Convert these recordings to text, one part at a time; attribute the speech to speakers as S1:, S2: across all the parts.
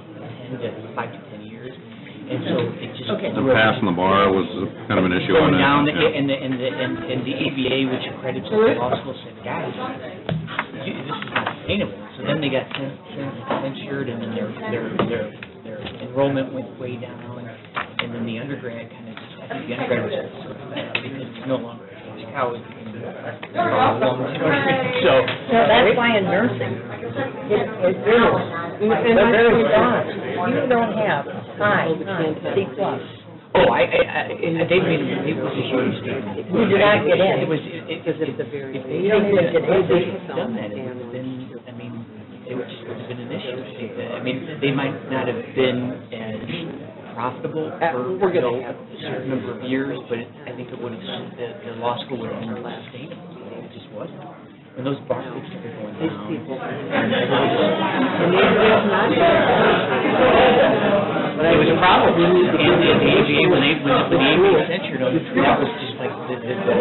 S1: at five to 10 years, and so it just...
S2: Okay.
S3: The pass on the bar was kind of an issue on
S1: Going
S3: that.
S1: down,
S3: yeah.
S1: and the, and the, and and the ABA, which accredits the law school, said, guys, you- this is not sustainable. So then they got cen- cen- censured, and then their, their, their, their enrollment went way down, and then the undergrad kind of, I think the undergrad was sort of fed up because it's no longer a cash cow, it's becoming a long-term, so.
S2: No, that's why in nursing, it, it is, they're very strong. You don't have high, high, C plus.
S1: Oh, I, I, I- they made, it was a huge statement.
S2: You did not get in.
S1: It was, it, it,
S4: Because it's a very
S1: if they
S4: big-
S1: had
S2: don't get
S1: if they
S2: paid.
S1: had done that, it would have been, I mean, it would just have been an issue. I mean, they might not have been as profitable
S4: Uh,
S1: for,
S4: we're
S1: you
S4: gonna
S1: know,
S4: have-
S1: a certain number of years, but it- I think it would have, the, the law school would have been less sustainable. It just wasn't. When those bar rates started going
S4: These
S1: down.
S4: people.
S1: and it was-
S4: And they will not.
S1: but it was a problem, and the, the ABA, when they, when the ABA censured them, that was just like, the, the, the.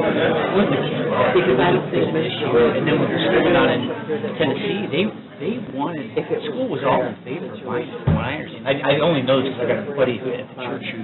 S4: Because I don't think
S1: issue, and then when we started out in Tennessee, they, they wanted, school was all in favor of mine, from what I understand. I, I only know this because I got a buddy who at the church who,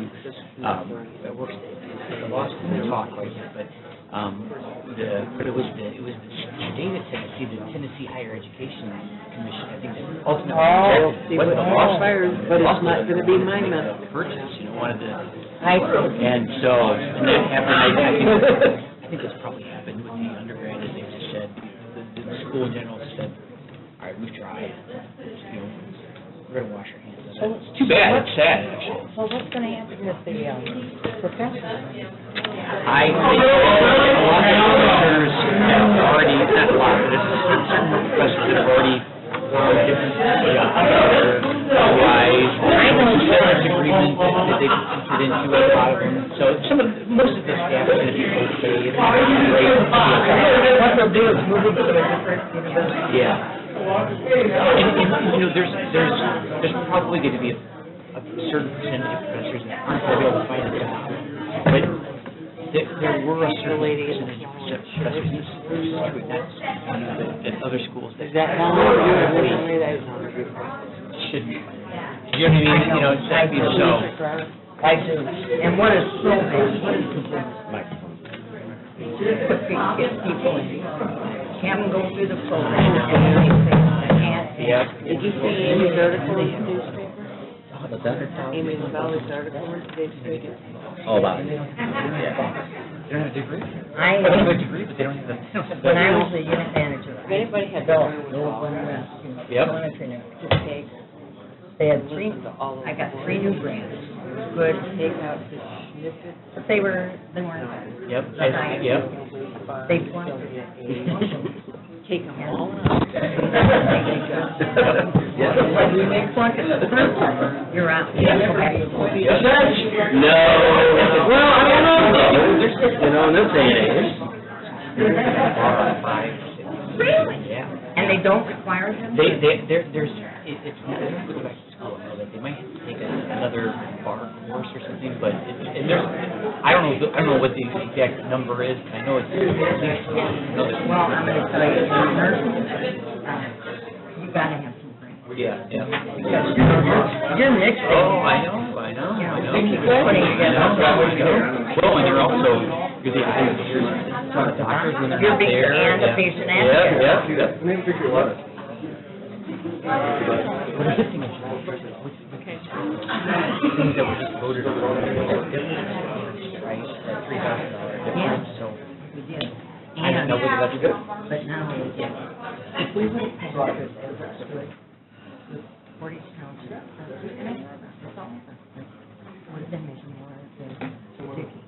S1: um, that works at the law school, they talk right now, but, um, the, but it was the, it was the state of Tennessee, the Tennessee Higher Education Commission, I think, that ultimately.
S4: Oh, see
S1: What
S4: what
S1: the law school-
S4: backfires, but it's not gonna be mine, man.
S1: Purchase, you know, one of the,
S2: I
S1: and so, and that happened, I I think, I think it's probably happened with the undergrad, is they just said, the, the school in general just said, all right, we've tried, you know, we're gonna wash our hands of
S2: So-
S1: it. It's too bad, it's sad, actually.
S2: So what's gonna happen with the, um, professors?
S1: I think a lot of professors have already, not a lot, but it's certain professors that have already found different jobs that are wise, severance agreements that they've entered into, a lot of them. So some of, most of the staff is going to be okay, it's gonna be great.
S2: What they'll do is move it to a different university.
S1: Yeah. And, and, you know, there's, there's, there's probably going to be a, a certain percentage of professors that aren't going to be able to find a job. But there, there were a certain percentage of professors, this is true, that's, you know, that, that other schools that
S4: Is that long?
S1: probably
S4: That is long.
S1: shouldn't. You know what I mean? You know, exactly, so.
S2: I do. And what is so bad, what is considered
S1: Microphone.
S2: put these get people in, have them go through the program and then they can't.
S1: Yeah.
S4: Did you see Amy's article in today's paper?
S1: What's that?
S4: Amy Lavalley's article in today's paper?
S1: All about it. Yeah. They don't have a degree.
S2: I,
S1: They don't have a degree, but they don't have the, they don't have the.
S2: when I was a unit manager,
S4: If
S2: I
S4: anybody had.
S2: built
S4: time with all
S2: one
S4: that,
S2: room.
S1: Yep.
S2: Monitoring it, just take, they had three,
S4: listen to all of
S2: I got
S4: them.
S2: three new grants,
S4: Good, take out the snippets.
S2: but they were, they weren't,
S1: Yep, I- yep.
S2: they plugged.
S4: Take them all
S2: When you make plug in the first one, you're out.
S5: No. Well, I don't know, though. You know, in this day and age.
S1: Really? Yeah.
S2: And they don't require them?
S1: They, they, there, there's, it- it's, I don't go back to school, I know that they might have to take another bar course or something, but, it- and there's, I don't know, the- I don't know what the exact number is, but I know it's, at least another.
S2: Well, I'm gonna tell you, as a nurse, uh, you gotta have some grants.
S1: Yeah, yeah.
S2: Because you're- You're mixing.
S1: Oh, I know, I know, I know.
S2: Thank you.
S1: Well, and you're also, you're the eyes and ears of the doctors when they're
S2: You're
S1: not
S2: being
S1: there.
S2: and the
S1: yeah.
S2: patient
S1: Yeah,
S2: advocate.
S1: yeah.
S5: Let me pick your letter.
S1: What is the thing that you- what's- what's- Things
S2: uh,
S1: that were just voted on. Right, that three thousand dollar difference, so.
S2: We did.
S1: I don't know whether that's good.
S2: But now, we get- if we would have passed this, it would have stood with Portage Township. and I thought that's all. Would have been making more than Dickey.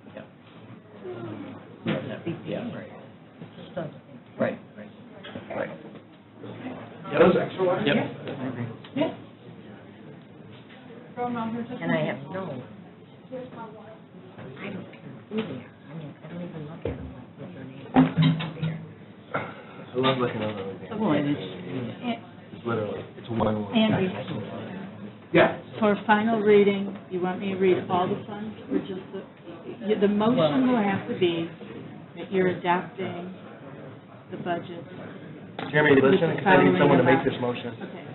S1: Yeah, right,
S2: It's just a-
S1: right, right, right.
S5: Those extra letters?
S1: Yep.
S2: And I have no. I don't care who they are. I mean, I don't even look at them like with their name.
S5: I love looking at everything.
S1: Well, and it's,
S5: It's literally, it's one word.
S6: Andy,
S5: Yeah.
S6: for final reading, you want me to read all the funds or just the, the motion will have to be that you're adopting the budget.
S5: Jeremy, listen, because I need someone to make this motion.
S6: Okay.